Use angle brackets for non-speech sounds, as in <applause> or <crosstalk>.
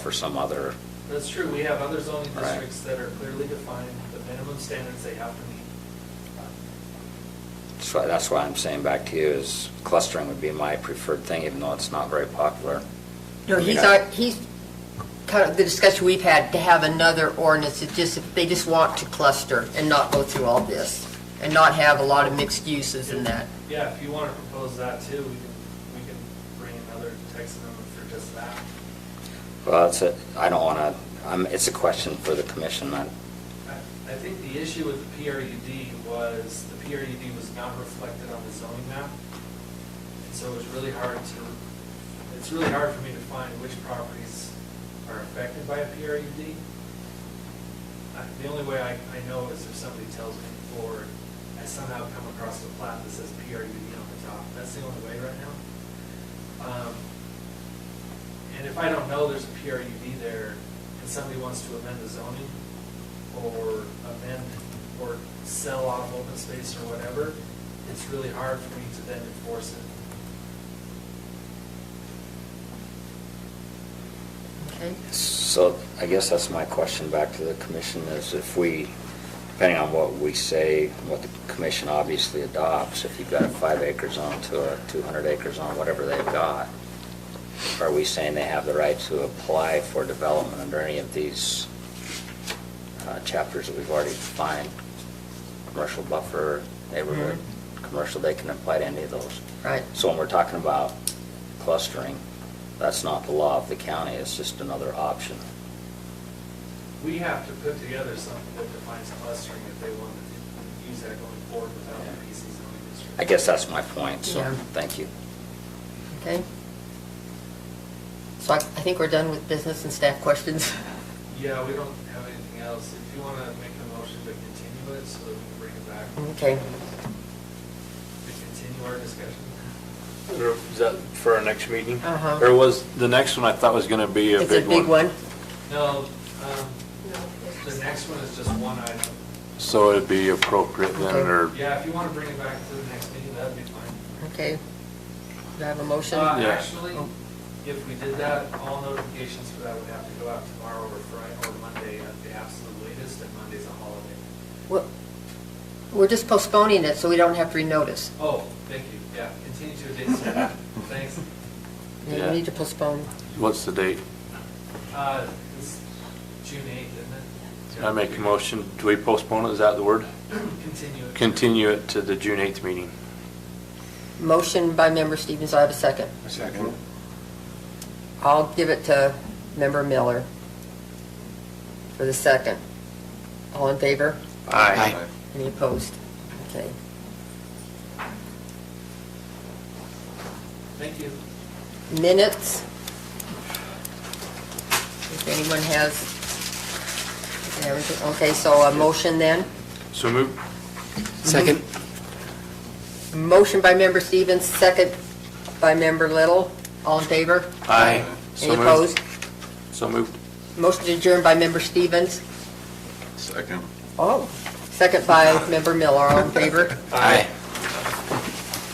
for some other, That's true, we have other zoning Right. districts that are clearly defined, the minimum standards they have to meet. that's why, that's why I'm saying back to you is clustering would be my preferred thing, even though it's not very popular. No, he's, Yeah. al- he's, kind of, the discussion we've had, to have another ordinance, it just, they just want to cluster and not go through all this, and not have a lot of mixed uses and that. Yeah, if you want to propose that too, we can, we can bring another text amendment for just that. Well, it's a, I don't wanna, I'm, it's a question for the commission, I, I, I think the issue with the PRUD was, the PRUD was not reflected on the zoning map. And so it was really hard to, it's really hard for me to find which properties are affected by a PRUD. I- The only way I, I know is if somebody tells me or I somehow come across a plat that says PRUD on the top. That's the only way right now. Um, And if I don't know there's a PRUD there and somebody wants to amend the zoning or amend or sell off open space or whatever, it's really hard for me to then enforce it. Okay. So I guess that's my question back to the commission is if we, depending on what we say, what the commission obviously adopts, if you've got a five acre zone to a 200 acre zone, whatever they've got, are we saying they have the right to apply for development under any of these uh, chapters that we've already defined? Commercial buffer, neighborhood, commercial, they can apply to any of those. Right. So when we're talking about clustering, that's not the law of the county, it's just another option. We have to put together something that defines clustering if they want to use that going forward without the PC zoning district. I guess that's my point, so, Yeah. thank you. Okay? So I, I think we're done with business and staff questions. <laughs> Yeah, we don't have anything else. If you want to make a motion to continue it so that we can bring it back. Okay. To continue our discussion. Or Is that for our next meeting? Uh-huh. Or was, the next one I thought was going to be a It's a big one. big one. No, um, the next one is just one item. So it'd be appropriate then, Okay. or, Yeah, if you want to bring it back to the next meeting, that'd be fine. Okay. Do I have a motion? Uh, Yeah. Actually, if we did that, all notifications for that would have to go out tomorrow or Friday or Monday at the absolute latest, and Monday's a holiday. We're- We're just postponing it, so we don't have to renotice. Oh, thank you, yeah, continue to a date certain, <laughs> thanks. You Yeah. need to postpone. what's the date? Uh, It's June 8th, isn't it? I make a motion, do we postpone it, is that the word? Continue. it. Continue it to the June 8th meeting. Motion by member Stevens, I have a second. Second. I'll give it to member Miller for the second. All in favor? Aye. Any opposed? Okay. Thank you. Minutes? If anyone has everything, okay, so a motion then? So move, Second. Motion by member Stevens, second by member Little. All in favor? aye. So Any moved. opposed? So moved. Motion adjourned by member Stevens. Second. Oh. Second by member Miller. All in favor? Aye.